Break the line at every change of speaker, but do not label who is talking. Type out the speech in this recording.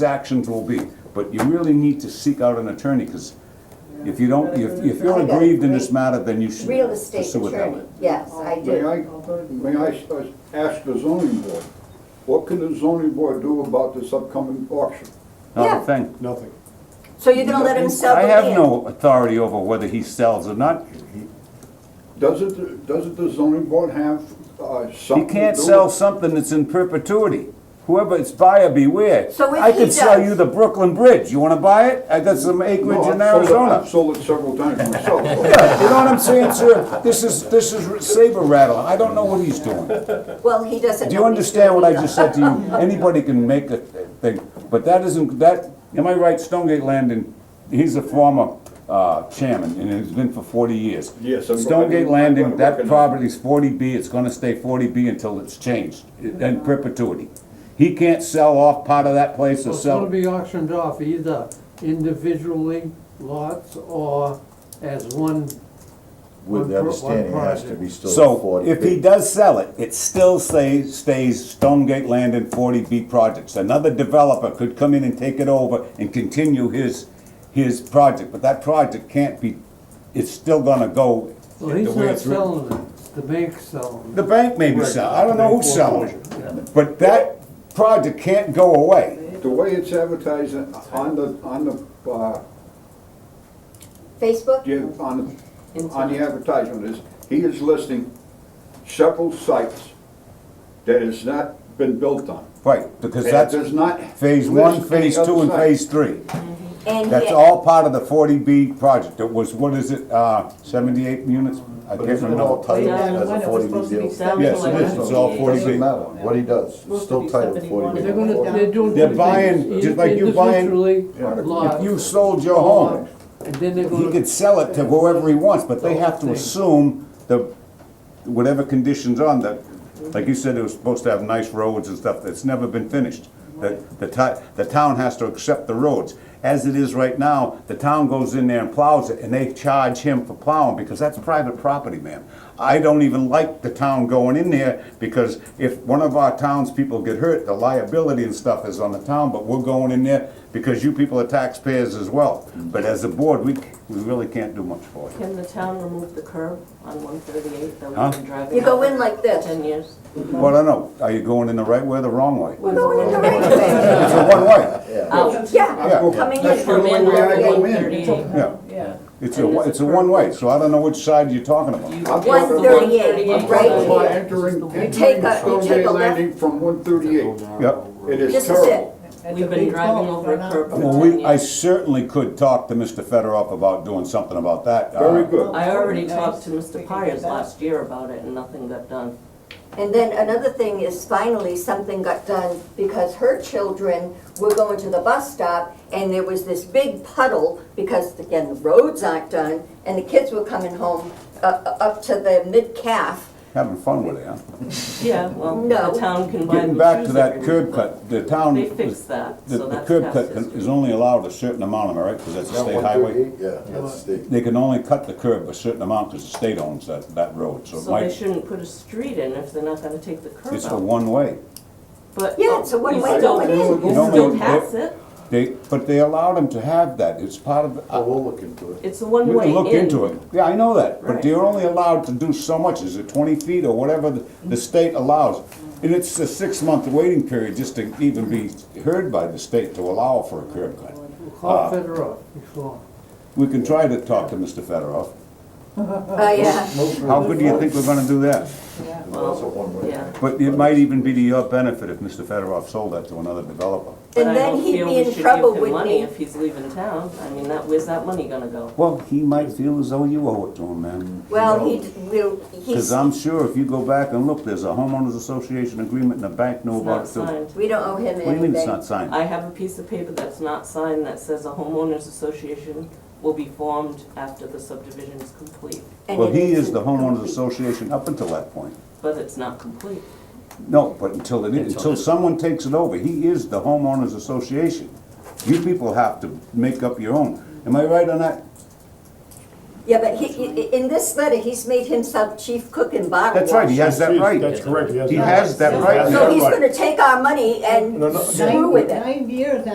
actions will be, but you really need to seek out an attorney, because if you don't, if, if you're
I got
aggrieved in this
re-
matter, then you should
Real estate
pursue it that way.
attorney, yes, I
May
do.
I, may I s- uh, ask the zoning board, what can the zoning board do about this upcoming auction?
Not
Yeah.
a thing.
Nothing.
So you're gonna let him sell
I
the
have
land?
no authority over whether he sells or not.
Doesn't, doesn't the zoning board have uh,
He
something to
can't
do
sell
with-
something that's in perpetuity. Whoever, it's buyer beware.
So if
I
he
could sell
does-
you the Brooklyn Bridge. You wanna buy it? I got some
No,
acreage
I've
in
sold it- I've
Arizona.
sold it several times myself.
Yeah, you know what I'm saying, sir? This is, this is saber rattling. I don't know what he's doing.
Well, he doesn't.
Do
know
you
he's
understand what I
doing
just
that.
said to you? Anybody can make a thing, but that isn't, that, am I right, Stonegate Landon, he's a former uh, chairman, and has been for forty years.
Yes, I'm-
Stonegate
I'm-
Landon,
I'm
that
working on it.
property's forty B, it's gonna stay forty B until it's changed, in perpetuity. He can't sell off part of that place or
Well, It's gonna
sell,
be auctioned off either individually lots or as one.
With
one
the
pro- one
understanding it has to be
project.
still
so
forty
if he
feet.
does sell it, it still stays, stays Stonegate Landon forty B projects. Another developer could come in and take it over and continue his, his project, but that project can't be, it's still gonna go the
Well, he's
way
not
it's written.
selling it, the bank's selling
The
it.
bank may be
Right.
selling, I don't know who's selling
Yeah.
it, but that project can't go away.
The way it's advertised on the, on the, uh,
Facebook?
yeah, on, the- on the advertisement is, he is listing several sites that has not been built on.
Right, because
And it
that's
does not
phase one,
list any
phase
other
two, and
site.
phase three.
And
That's
he-
all part of the forty B project, it was, what is it, uh, seventy-eight units? I
But
can't
isn't it all
remember.
titled
Yeah, I
as
know,
a
it was
forty
supposed to
B deal?
be sound Yes, it like is.
It's all
78.
forty B.
Doesn't
matter what he does, it's
Supposed to
still
be
titled
71.
forty B.
They're gonna, they're doing.
They're
two
buying,
things.
just like you buying-
Individually
If you
lots,
sold your home,
and then they're
he
gonna,
could sell it to whoever he wants, but they have to
Thing.
assume the, whatever conditions on that. Like you said, it was supposed to have nice roads and stuff, that's never been finished. The, the ti, the town has to accept the roads. As it is right now, the town goes in there and plows it, and they charge him for plowing, because that's private property, man. I don't even like the town going in there, because if one of our townspeople get hurt, the liability and stuff is on the town, but we're going in there because you people are taxpayers as well. But as a board, we, we really can't do much for you.
Can the town remove the curb on one thirty-eight that
Huh?
we've been driving?
You go
on
in like this.
for Ten years.
Well, I don't know, are you going in the right way or the wrong way?
We're going in the right way.
It's a one-way,
Out.
Yeah,
yeah,
coming in.
That's the
Oh, Come
only way I go in.
138.
yeah. It's a, one- it's a one-way, so I don't know which side you're talking about.
One
I'm talking about-
thirty-eight,
I'm talking about
right here.
entering,
take a- you take
entering
a
Stonegate
left.
Landing from one thirty-eight.
Yep.
It is
This is it.
terrible.
We've been driving over a curb
Well,
for ten
we, I
years.
certainly could talk to Mr. Federoff about doing something about that.
Very
Uh,
good.
I already talked to Mr. Pires last year about it and nothing got done.
And then another thing is finally something got done because her children were going to the bus stop and there was this big puddle because again, the roads aren't done and the kids were coming home uh, uh, up to the mid-calf.
Having fun with it, huh?
Yeah, well,
No.
the town can buy
Getting
me
back to
shoes
that
every
curb
week,
cut, the town.
They fixed that,
The
so
the
that's
curb cut
past
can- is
history.
only allowed a certain amount, am I right? Because that's a
Yeah,
state
one
highway.
thirty-eight, yeah, that's state.
They can only cut the curb a certain amount because the state owns that, that road, so it
So they
might,
shouldn't put a street in if they're not gonna take the curb
it's a
out.
one-way.
But
Yeah, it's a one-way
you still-
going in.
You
No,
still
ma'am,
pass
they-
it.
They, but they allowed them to have that, it's part of,
Oh,
uh,
we'll look into it.
It's a
we
one-way
can
in.
look into it. Yeah, I know that, but
Right.
they're only allowed to do so much, is it twenty feet or whatever the, the state allows? And it's a six-month waiting period just to even be heard by the state to allow for a curb cut.
call Federoff before.
We can try to talk to Mr. Federoff.
Oh, yeah.
How good do you think we're gonna do that?
That's a one-way.
Yeah.
But it might even be to your benefit if Mr. Federoff sold that to another developer.
But
And
I
then
don't
he'd
feel
be
we
in
should
trouble
give him
with
money
me.
If he's leaving town, I mean, that, where's that money gonna go?
Well, he might feel as though you owe it to him, man.
Well, he will,
Because
he's,
I'm sure if you go back and look, there's a homeowners association agreement and the bank knew
It's
about
not
it too. What
signed.
we don't owe him anything.
do you mean it's not signed?
I have a piece of paper that's not signed that says a homeowners association will be formed after the subdivision is complete,
And
Well,
it
he is
isn't
the homeowners
complete.
association up until that point.
but it's not complete.
No, but until it, is- until someone takes it over, he is the homeowners association. You people have to make up your own. Am I right on that?
Yeah, but he, i- in this letter, he's made himself chief cook and bottle
That's right, he
washer.
has that right.
That's correct,
He has that
He
right.
has
So he's
Right.
gonna take our money and
No, no,
screw with it.
Nine years